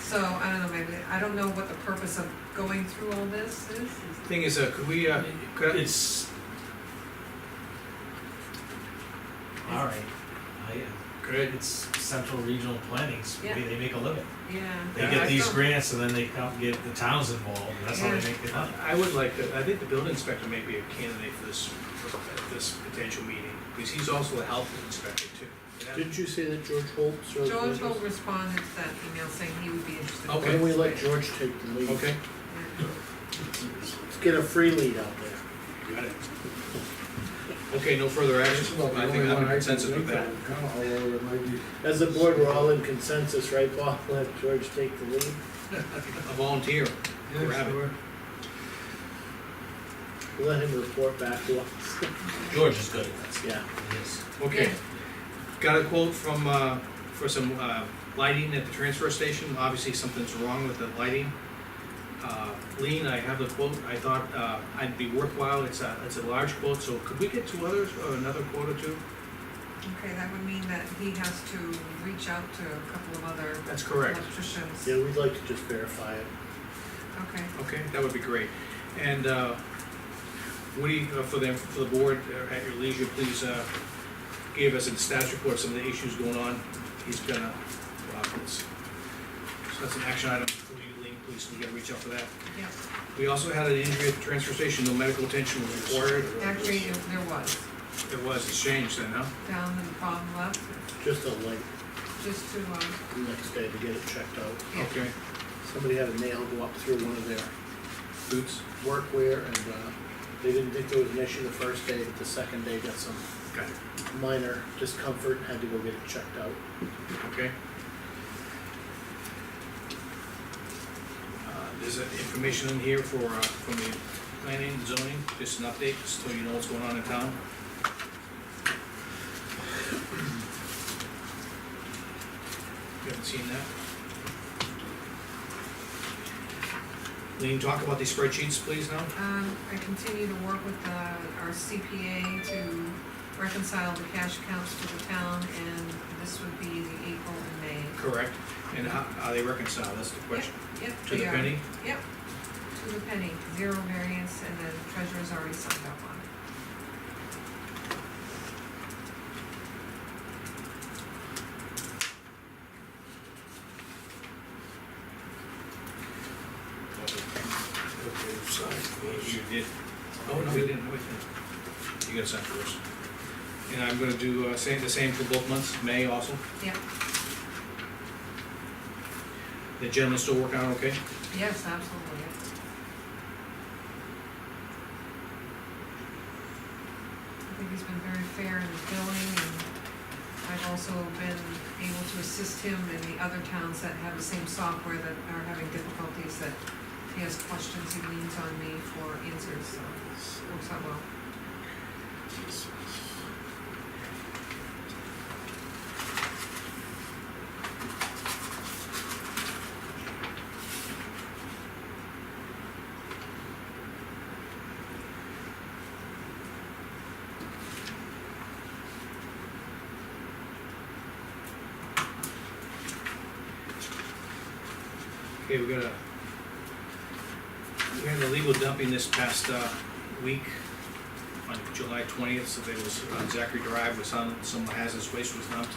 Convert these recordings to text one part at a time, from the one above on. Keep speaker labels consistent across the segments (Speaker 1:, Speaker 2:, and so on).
Speaker 1: So, I don't know, maybe, I don't know what the purpose of going through all this is.
Speaker 2: Thing is, uh, could we, uh, could, I-
Speaker 3: It's. All right, I,
Speaker 2: could,
Speaker 3: it's central regional planning's, the way
Speaker 1: Yeah.
Speaker 3: they make a living.
Speaker 1: Yeah.
Speaker 3: They
Speaker 2: Yeah,
Speaker 3: get
Speaker 1: I
Speaker 3: these
Speaker 1: don't-
Speaker 3: grants and then they help get the towns involved, and that's how they
Speaker 1: Yeah.
Speaker 3: make their
Speaker 2: I-
Speaker 3: money.
Speaker 2: I would like to, I think the building inspector may be a candidate for this, for this potential meeting, because he's also a health inspector too. And
Speaker 4: Didn't you say that George Holt served?
Speaker 1: George
Speaker 4: with us?
Speaker 1: will respond to that email saying he would be interested. in
Speaker 2: Okay.
Speaker 4: Why don't we let George take the lead?
Speaker 2: that- Okay,
Speaker 1: Yeah.
Speaker 4: Let's get a free lead out there.
Speaker 2: got it. Okay, no further action,
Speaker 5: That's about the
Speaker 2: I think
Speaker 5: only
Speaker 2: I'm
Speaker 5: one
Speaker 2: in
Speaker 5: I can
Speaker 2: consensus
Speaker 5: think
Speaker 2: with that.
Speaker 5: of. Kinda all over the place.
Speaker 4: As a board, we're all in consensus, right, Bob? Let George take the lead.
Speaker 2: A volunteer,
Speaker 5: Yeah,
Speaker 2: Grab it.
Speaker 5: sure.
Speaker 4: Let him report back to us.
Speaker 3: George is good at this,
Speaker 4: Yeah.
Speaker 3: he is.
Speaker 2: okay. Got a quote from, uh, for some, uh, lighting at the transfer station, obviously something's wrong with the lighting. Uh, Lean, I have the quote, I thought, uh, I'd be worthwhile, it's a, it's a large quote, so could we get two others, or another quote or two?
Speaker 1: Okay, that would mean that he has to reach out to a couple of other
Speaker 2: That's correct.
Speaker 1: electricians.
Speaker 4: Yeah, we'd like to just verify it.
Speaker 1: Okay,
Speaker 2: Okay, that would be great. And uh, Woody, uh, for the, for the board, uh, at your leisure, please uh, give us a status report, of some of the issues going on. He's gonna, uh, this- so that's an action item for you, Lean, please, you gotta reach out for that.
Speaker 1: yeah,
Speaker 2: We also had an injury at the transfer station, no medical attention was required.
Speaker 1: actually, there there was,
Speaker 2: It was, it's changed then, huh?
Speaker 1: down in the bottom left,
Speaker 4: Just a link
Speaker 1: just to, um,
Speaker 4: the next day to get it checked out.
Speaker 1: yeah.
Speaker 2: Okay,
Speaker 4: Somebody had a nail go up through one of their
Speaker 2: boots,
Speaker 4: workwear and, uh, they didn't think there was an issue the first day, but the second day got some
Speaker 2: got it,
Speaker 4: minor discomfort, and had to go get it checked out.
Speaker 2: okay. Uh, There's uh, information in here for, uh, from the planning, zoning, just an update, just so you know what's going on in town. You haven't seen that? Lean, talk about these spreadsheets, please, now.
Speaker 1: Um, I continue to work with, uh, our CPA to reconcile the cash accounts to the town, and this would be the April and May.
Speaker 2: Correct. And how, how they reconcile, that's the question.
Speaker 1: Yep,
Speaker 2: To the
Speaker 1: they are.
Speaker 2: penny?
Speaker 1: Yep, to the penny, zero variance, and the treasurer's already signed up on it.
Speaker 2: You did. Oh, no, we didn't, we didn't. You gotta sign first. And I'm gonna do, uh, same, the same for both months, May also.
Speaker 1: Yep,
Speaker 2: The gentleman's still working on, it, okay?
Speaker 1: yes, absolutely, yep. I think he's been very fair in the billing, and I've also been able to assist him in the other towns that have the same software that are having difficulties, that if he has questions, he leans on me for answers, so it works out well.
Speaker 2: Okay, we're gonna, we had a legal dumping this past, uh, week on July twentieth, so there was, on Zachary Drive was on, some hazardous waste was dumped.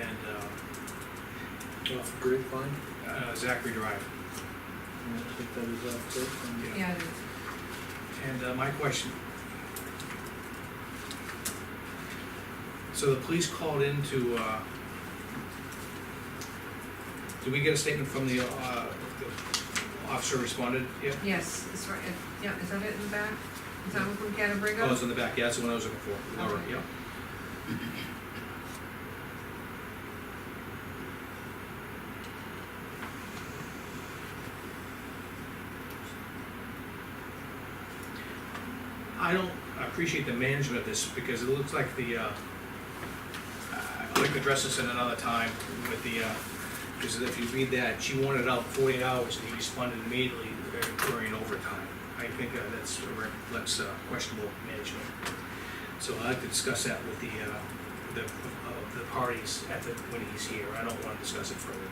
Speaker 2: And, uh,
Speaker 4: Off grapevine?
Speaker 2: uh, Zachary Drive.
Speaker 4: I think that was off grapevine.
Speaker 2: Yeah.
Speaker 1: Yeah, it is.
Speaker 2: And uh, my question. So the police called in to, uh, did we get a statement from the, uh, the officer responded? Yep.
Speaker 1: yes, it's right, it- yeah, is that it in the back? Is that what we gotta bring
Speaker 2: Oh,
Speaker 1: up?
Speaker 2: it's in the back, yeah, that's the one I was looking for. All right,
Speaker 1: Okay.
Speaker 2: yep. I don't appreciate the management of this because it looks like the, uh, I'd like to address this in another time with the, uh, because if you read that, she wanted out forty-eight hours and he responded immediately, uh, during overtime. I think uh, that's, a re- that's uh, questionable management. So I'd like to discuss that with the, uh, the, uh, the parties at the, when he's here. I don't wanna discuss it further.